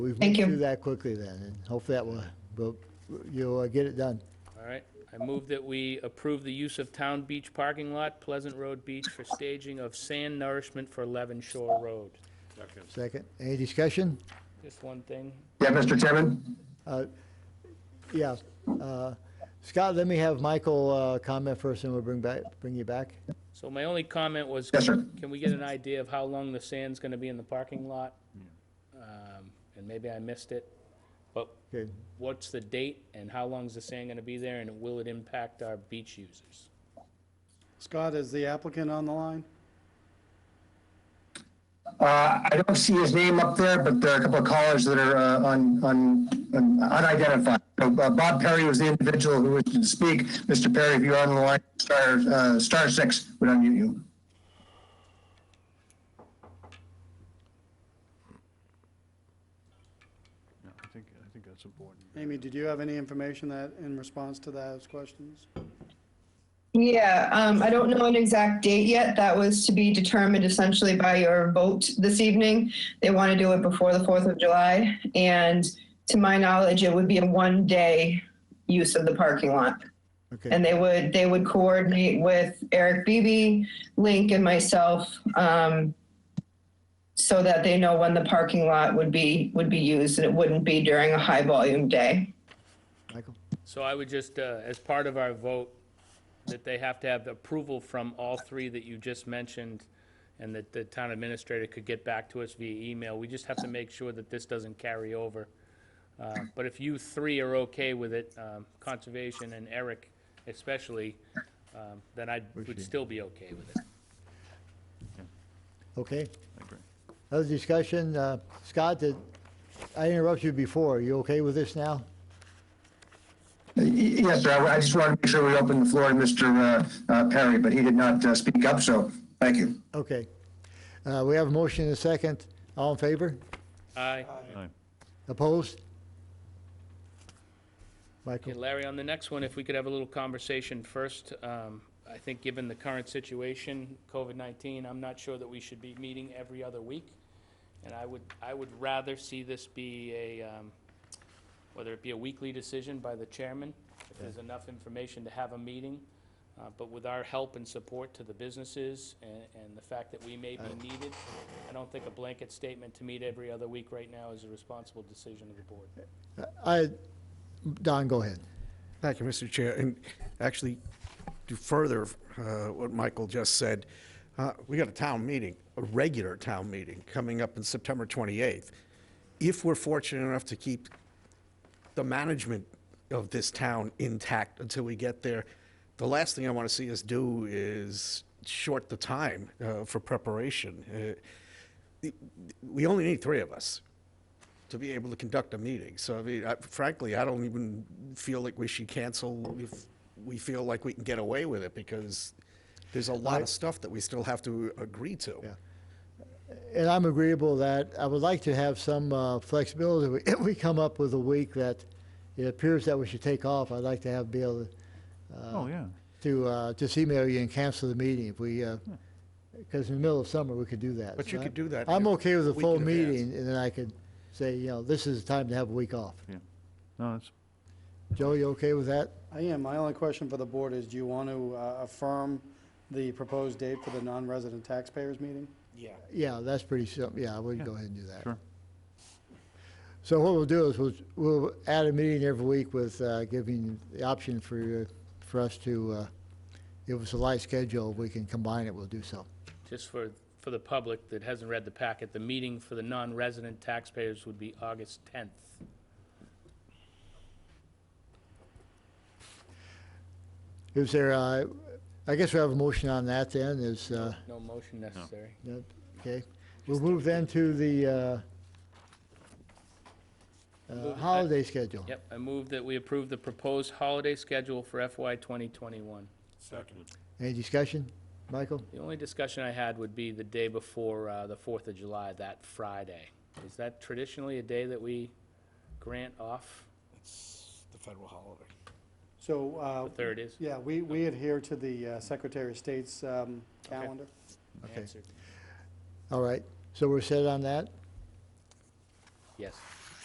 We've Thank moved you. through that quickly then, and hopefully that will, will- you'll uh, get it done. All right, I move that we approve the use of town beach parking lot, Pleasant Road Beach for staging of sand nourishment for Levin Shore Road. Second, any discussion? Just one thing, Yeah, Mr. Chairman? Uh, Yeah, uh, Scott, let me have Michael uh, comment first, and we'll bring back, bring you back. so my only comment was. Yes, sir. Can we get an idea of how long the sand's gonna be in the parking lot? Um, And maybe I missed it, but Okay, what's the date and how long's the sand gonna be there and will it impact our beach users? Scott, is the applicant on the line? Uh, I don't see his name up there, but there are a couple of callers that are uh, un- un- un- unidentified. So, uh, Bob Perry was the individual who wished to speak. Mr. Perry, if you're on the line, star, uh, star six would unmute you. Yeah, I think, I think that's important. Amy, did you have any information that, in response to those questions? Yeah, um, I don't know an exact date yet. That was to be determined essentially by your vote this evening. They want to do it before the Fourth of July, and to my knowledge, it would be a one-day use of the parking lot. okay, And they would, they would coordinate with Eric Beebe, Link, and myself, um, so that they know when the parking lot would be, would be used, and it wouldn't be during a high-volume day. Michael? So I would just, uh, as part of our vote, that they have to have approval from all three that you just mentioned, and that the town administrator could get back to us via email. We just have to make sure that this doesn't carry over. Uh, But if you three are okay with it, um, Conservation and Eric especially, um, then I would still be okay with it. Okay, I agree. other discussion, uh, Scott, did, I interrupted you before, you okay with this now? Y- Uh, y- Yes, sir, I I just wanted to make sure we opened the floor to Mr. uh, uh, Perry, but he did not uh, speak up, so thank you. Okay, Uh, we have a motion and a second, all in favor? Aye. Aye. Opposed? Michael? Okay, Larry, on the next one, if we could have a little conversation first. um, I think given the current situation, COVID-19, I'm not sure that we should be meeting every other week. And I would, I would rather see this be a, um, whether it be a weekly decision by the chairman, if there's enough information to have a meeting. Uh, But with our help and support to the businesses and, and the fact that we may be needed, I don't think a blanket statement to meet every other week right now is a responsible decision of the board. I, Don, go ahead. Thank you, Mr. Chair. And actually, to further uh, what Michael just said, uh, we got a town meeting, a regular town meeting, coming up on September 28th. If we're fortunate enough to keep the management of this town intact until we get there, the last thing I want to see us do is short the time uh, for preparation. Uh, the- We only need three of us to be able to conduct a meeting. So I mean, I- frankly, I don't even feel like we should cancel if we feel like we can get away with it because there's a lot of stuff that we still have to agree to. Yeah. And I'm agreeable that I would like to have some uh, flexibility. We- If we come up with a week that it appears that we should take off, I'd like to have, be able to, Oh, yeah. to uh, just email you and cancel the meeting if we, because in the middle of summer, we could do that. But you So could do that I'm in a okay with a week full in advance. meeting, and then I could say, you know, this is the time to have a week off. Yeah. No, that's, Joe, you okay with that? I am. My only question for the board is, do you want to uh, affirm the proposed date for the non-resident taxpayers meeting? Yeah. Yeah, that's pretty simple. Yeah, we can go ahead and do that. sure. So what we'll do is we'll, we'll add a meeting every week with uh, giving the option for, uh, for us to, uh, if it's a light schedule, we can combine it, we'll do so. just for, for the public that hasn't read the packet, the meeting for the non-resident taxpayers would be August 10th. Is there, uh, I guess we have a motion on that then, is, uh, No motion necessary. yeah, okay. We'll move then to the uh, uh, Move- holiday schedule. Yep, I move that we approve the proposed holiday schedule for FY 2021. Any discussion? Michael? The only discussion I had would be the day before uh, the 4th of July, that Friday. Is that traditionally a day that we grant off? It's the federal holiday. So, uh, The 3rd is? yeah, we, we adhere to the uh, Secretary of State's um, calendar. Okay. Answered. All right, so we're set on that? Yes.